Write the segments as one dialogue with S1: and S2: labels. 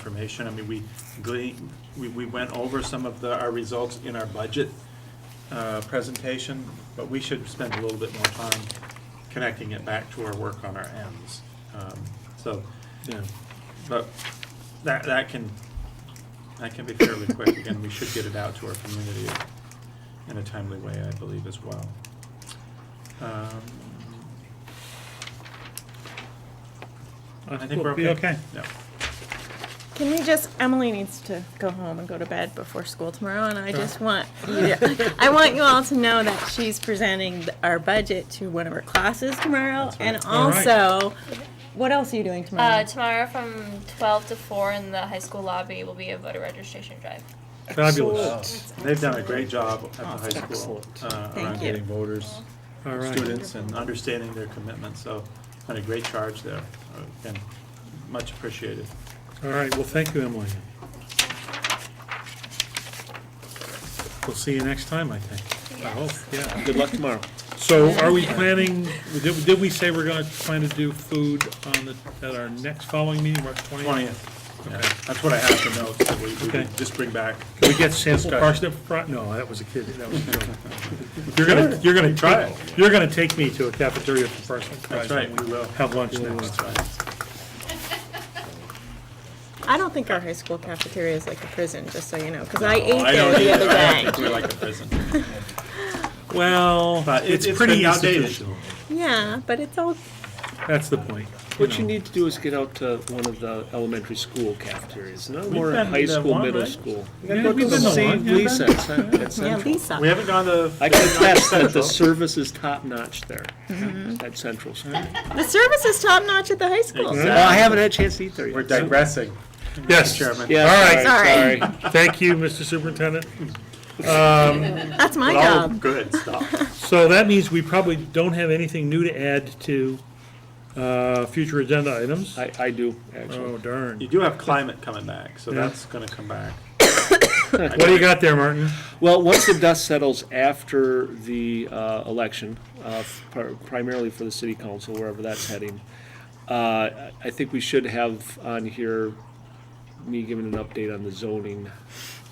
S1: information. I mean, we gleaned, we, we went over some of the, our results in our budget uh, presentation, but we should spend a little bit more time connecting it back to our work on our ends. Um, So, yeah, but that, that can, that can be fairly quick. Again, we should get it out to our community in a timely way, I believe, as well. Um, I think we're okay.
S2: Be okay.
S1: Yeah.
S3: Can we just, Emily needs to go home and go to bed before school tomorrow, and I just want, you to- I want you all to know that she's presenting th- our budget to one of her classes tomorrow, and
S2: All right.
S3: also, what else are you doing
S4: Uh,
S3: tomorrow?
S4: tomorrow from 12 to 4 in the high school lobby will be a voter registration drive.
S2: Fabulous.
S1: They've done a great job at the high school
S5: excellent.
S1: uh, around
S3: Thank you.
S1: getting voters,
S2: All right.
S1: students, and understanding their commitment, so done a great charge there, uh, and much appreciated.
S2: All right, well, thank you, Emily. We'll see you next time, I think. I hope, yeah.
S5: Good luck tomorrow.
S2: So are we planning, did, did we say we're gonna plan to do food on the, at our next following meeting, March twentieth?
S1: Twentieth,
S2: Okay.
S1: that's what I have to note, that we, we
S2: Okay.
S1: would just bring back.
S2: Can we get sample
S1: Discussion.
S2: parsnip fry? No, that was a kid, that was a joke. You're gonna, you're gonna
S1: Try
S2: try,
S1: it.
S2: you're gonna take me to a cafeteria for parsnip fries.
S1: That's right, we will.
S2: Have lunch next.
S1: That's right.
S3: I don't think our high school cafeteria is like a prison, just so you know, because I
S1: Oh,
S3: ate
S1: I
S3: there
S1: don't
S3: the
S1: either.
S3: other
S1: I don't
S3: day.
S1: think we like the prison.
S2: Well,
S1: But it-
S2: it's pretty
S1: been outdated.
S2: outdated.
S3: Yeah, but it's all,
S2: That's the point.
S5: What you
S2: know.
S5: need to do is get out to one of the elementary school cafeterias, no more
S1: been
S5: at high
S1: to
S5: school,
S1: one,
S5: middle
S1: right?
S5: school.
S2: Yeah, we've been to one, yeah,
S5: Lisa,
S2: Ben.
S5: it's not- it's
S3: yeah,
S5: central.
S1: We
S3: Lisa.
S1: haven't gone to.
S5: I can attest that the
S1: Central.
S5: service is top-notch there, at Central School. Well,
S3: The service is top-notch at the high school.
S1: Exactly.
S5: I haven't had a chance to eat there yet.
S1: We're digressing,
S2: Yes,
S1: Chairman.
S5: Yeah,
S2: All
S3: right.
S5: sorry, sorry.
S2: Thank you, Mr. Superintendent.
S3: That's my
S1: Oh,
S3: job.
S1: good stuff.
S2: So that means we probably don't have anything new to add to uh, future agenda items.
S5: I, I do,
S2: Oh
S5: actually.
S2: darn.
S1: You do have climate coming back, so
S2: Yeah.
S1: that's gonna come back.
S2: What do you got there, Martin?
S5: Well, once the dust settles after the uh, election, uh, pri- primarily for the city council, wherever that's heading, uh, I I think we should have on here me giving an update on the zoning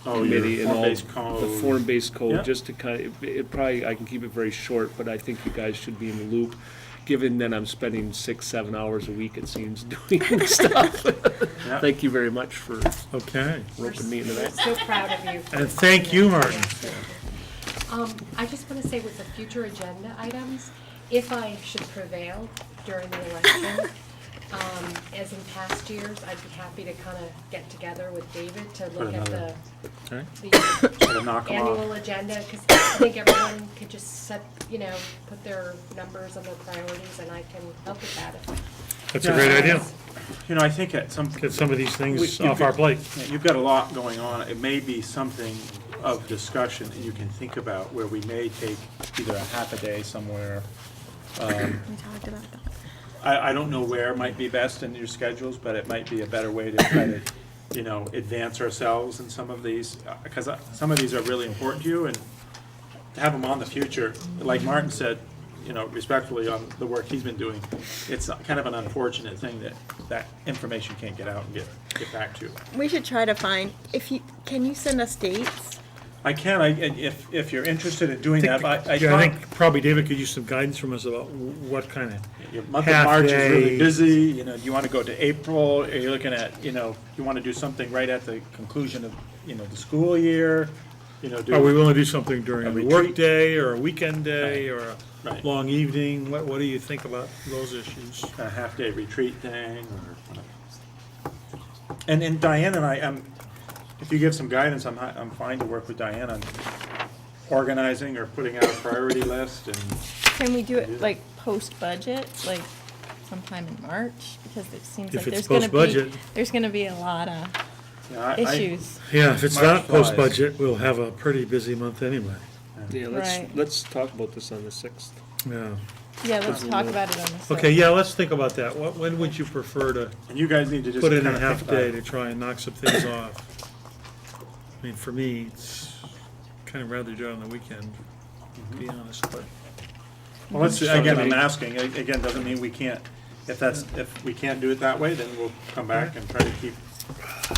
S1: Oh, your
S5: committee and all.
S1: form-based
S5: The
S1: code.
S5: form-based
S1: Yeah.
S5: code, just to kind, of- it- it probably, I can keep it very short, but I think you guys should be in the loop, given that I'm spending six, seven hours a week, it seems, doing stuff.
S1: Yeah.
S5: Thank you very much for
S2: Okay.
S5: roping me into that.
S6: So proud of you.
S2: And thank you, Martin.
S6: Um, I just want to say with the future agenda items, if I should prevail during the election, um, as in past years, I'd be happy to kind of get together with David to look at the,
S1: another-
S2: Okay.
S6: the
S1: Gotta knock 'em off.
S6: annual agenda, because I think everyone could just set, you know, put their numbers and their priorities, and I can help with that.
S2: That's a great idea.
S1: You know, I think at some,
S2: Get some of these things
S1: We- you
S2: off our
S1: could-
S2: plate.
S1: you've got a lot going on. It may be something of discussion that you can think about where we may take either a half a day somewhere.
S3: We talked about that.
S1: I, I don't know where might be best in your schedules, but it might be a better way to try to, you know, advance ourselves in some of these. Because some of these are really important to you and to have them on the future, like Martin said, you know, respectfully on the work he's been doing, it's kind of an unfortunate thing that that information can't get out and get, get back to you.
S3: We should try to find, if you, can you send us dates?
S1: I can, I, and if, if you're interested in doing
S2: Yeah,
S1: that, I, I
S2: I
S1: talked,
S2: think probably David could use some guidance from us about wh- what kind of.
S1: your month of March is
S2: half-day-
S1: really busy, you know, do you wanna go to April, are you looking at, you know, you wanna do something right at the conclusion of, you know, the school year? You know,
S2: Are we
S1: do,
S2: willing to do something during
S1: A
S2: a
S1: retreat?
S2: workday or a weekend day or a
S1: Right.
S2: long evening? What, what do you think about those issues?
S1: a half-day retreat thing, or whatever. And, and Diane and I, um, if you give some guidance, I'm, hi- I'm fine to work with Diane on organizing or putting out a priority list and,
S3: Can we do it like post-budget, like sometime in March? Because it seems
S2: If
S3: like
S2: it's
S3: there's gonna be,
S2: post-budget.
S3: there's gonna be a lot of
S1: you know, I- I-
S3: issues.
S2: Yeah, if it's
S1: March
S2: not
S1: flies.
S2: post-budget, we'll have a pretty busy month anyway.
S5: Yeah, let's,
S3: Right.
S5: let's talk about this on the sixth.
S2: Yeah.
S3: Yeah, let's talk about it on the.
S2: Okay, yeah, let's think about that. What, when would you prefer to
S1: And you guys need to just
S2: put in
S1: kinda
S2: a
S1: think
S2: half
S1: about
S2: day
S1: it.
S2: to try and knock some things off? I mean, for me, it's kind of rather do it on the weekend, to be
S1: Mm-hmm.
S2: honest, but.
S1: Well, let's, again, I'm asking, A- again, doesn't mean we can't, if that's, if we can't do it that way, then we'll come back and try to keep